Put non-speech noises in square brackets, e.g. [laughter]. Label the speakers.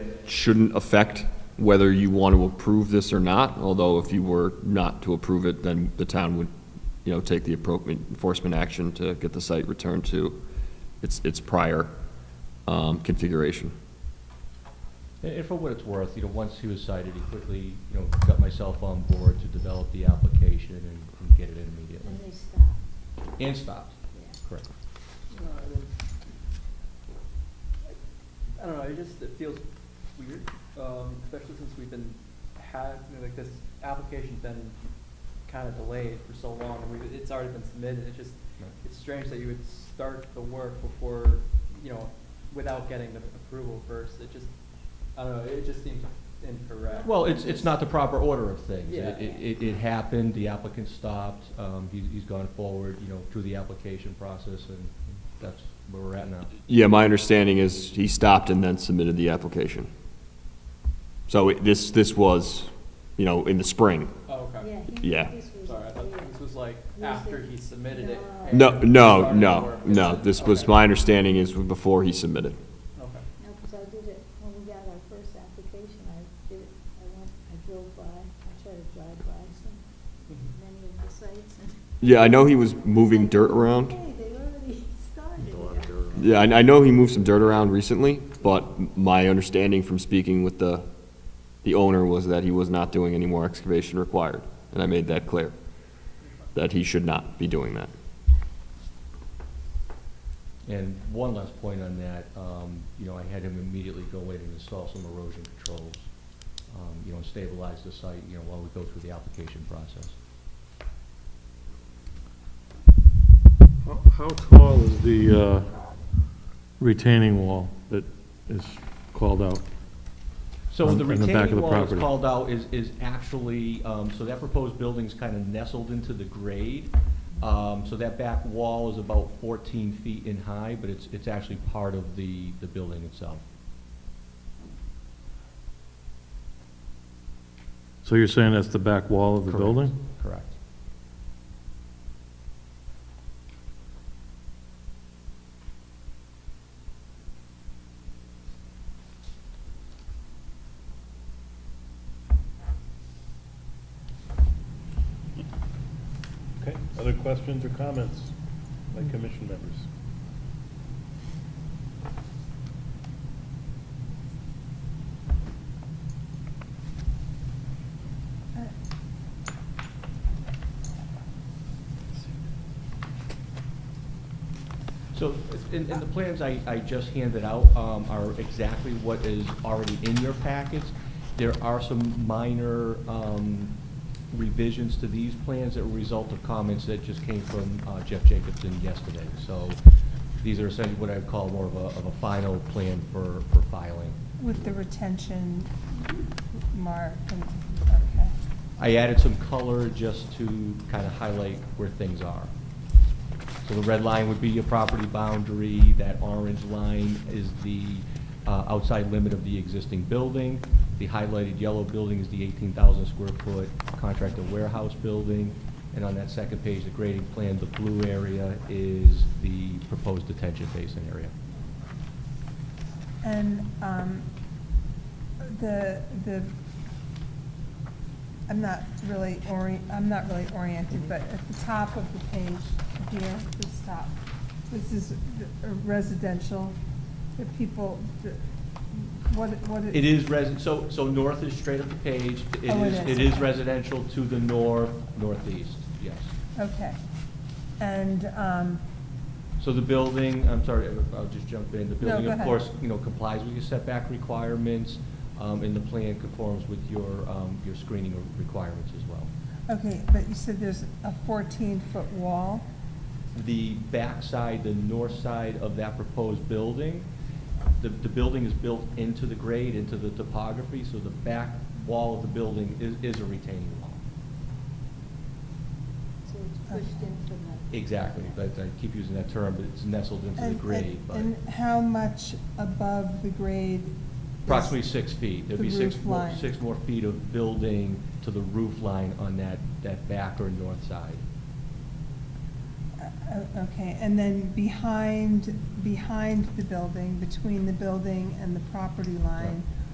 Speaker 1: shouldn't affect whether you want to approve this or not, although if you were not to approve it, then the town would, you know, take the appropriate enforcement action to get the site returned to its, its prior um, configuration.
Speaker 2: And and for what it's worth, you know, once he was cited, he quickly, you know, got myself on board to develop the application and and get it in immediately.
Speaker 3: And they stopped,
Speaker 2: And stopped.
Speaker 3: yeah.
Speaker 2: Correct.
Speaker 4: No, I mean, I don't know, it just, it feels weird, um, especially since we've been had, you know, like this application's been kind of delayed for so long, and we, it's already been submitted, it's just,
Speaker 2: Right.
Speaker 4: it's strange that you would start the work before, you know, without getting the approval first, it just, I don't know, it just seems incorrect.
Speaker 2: Well, it's, it's not the proper order of things.
Speaker 4: Yeah.
Speaker 2: It, it, it happened, the applicant stopped, um, he's, he's gone forward, you know, through the application process, and that's where we're at now.
Speaker 1: Yeah, my understanding is he stopped and then submitted the application. So it- this, this was, you know, in the spring.
Speaker 4: Oh, okay,
Speaker 3: Yeah. he-
Speaker 1: Yeah.
Speaker 3: this was
Speaker 4: sorry, I thought this was like
Speaker 3: Usually-
Speaker 4: after he submitted it.
Speaker 3: No.
Speaker 4: and
Speaker 1: No, no,
Speaker 4: started the
Speaker 1: no,
Speaker 4: work.
Speaker 1: no, this was,
Speaker 4: Okay.
Speaker 1: my understanding is before he submitted.
Speaker 4: Okay.
Speaker 3: No, because I did it, when we got our first application, I did it, I went, I drove by, I tried to drive by some, many of the sites and.
Speaker 1: Yeah, I know he was [laughs] moving dirt around.
Speaker 3: Hey, they already [laughs] started.
Speaker 1: Yeah, I I know he moved some dirt around recently, but my understanding from speaking with the, the owner was that he was not doing any more excavation required, and I made that clear, that he should not be doing that.
Speaker 2: And one last point on that, um, you know, I had him immediately go in and install some erosion controls, um, you know, and stabilize the site, you know, while we go through the application process.
Speaker 5: How- How tall is the uh, retaining wall that is called out?
Speaker 2: So
Speaker 5: On-
Speaker 2: the
Speaker 5: on the back of
Speaker 2: retaining
Speaker 5: the
Speaker 2: wall that's
Speaker 5: property.
Speaker 2: called out is, is actually, um, so that proposed building's kind of nestled into the grade. Um, so that back wall is about fourteen feet in high, but it's, it's actually part of the, the building itself.
Speaker 5: So you're saying that's the back wall of the
Speaker 2: Correct.
Speaker 5: building?
Speaker 2: Correct.
Speaker 5: Okay, other questions or comments by commission members?
Speaker 3: Uh,
Speaker 2: So, in, in the plans I, I just handed out, um, are exactly what is already in your packets. There are some minor, um, revisions to these plans that were a result of comments that just came from uh, Jeff Jacobson yesterday. So, these are essentially what I would call more of a, of a final plan for, for filing.
Speaker 6: With the retention mark, and- okay.
Speaker 2: I added some color just to kind of highlight where things are. So the red line would be your property boundary, that orange line is the uh, outside limit of the existing building. The highlighted yellow building is the 18,000 square foot contractor warehouse building. And on that second page, the grading plan, the blue area is the proposed detention basin area.
Speaker 6: And um, the, the, I'm not really ori, I'm not really oriented, but at the top of the page here, this top, this is the- a residential, the people, the- what, what?
Speaker 2: It is resi, so, so north is straight up the page. It
Speaker 6: Oh, it
Speaker 2: is,
Speaker 6: is.
Speaker 2: it is residential to the north, northeast, yes.
Speaker 6: Okay. And, um,
Speaker 2: So the building, I'm sorry, I'll just jump in. The
Speaker 6: No,
Speaker 2: building,
Speaker 6: go
Speaker 2: of
Speaker 6: ahead.
Speaker 2: course, you know, complies with your setback requirements, um, and the plan conforms with your, um, your screening requirements as well.
Speaker 6: okay, but you said there's a 14-foot wall?
Speaker 2: The backside, the north side of that proposed building, the, the building is built into the grade, into the topography, so the back wall of the building is, is a retaining wall.
Speaker 3: So it's pushed in from the.
Speaker 2: Exactly, but I keep using that term, but it's nestled into the
Speaker 6: And-
Speaker 2: grade,
Speaker 6: and-
Speaker 2: but
Speaker 6: And how much above the grade? is-
Speaker 2: approximately six feet. There'd
Speaker 6: The
Speaker 2: be six,
Speaker 6: roof
Speaker 2: more-
Speaker 6: line.
Speaker 2: six more feet of building to the roof line on that, that back or north side.
Speaker 6: Uh, uh, Okay, and then behind, behind the building, between the building and the property line,
Speaker 2: Right.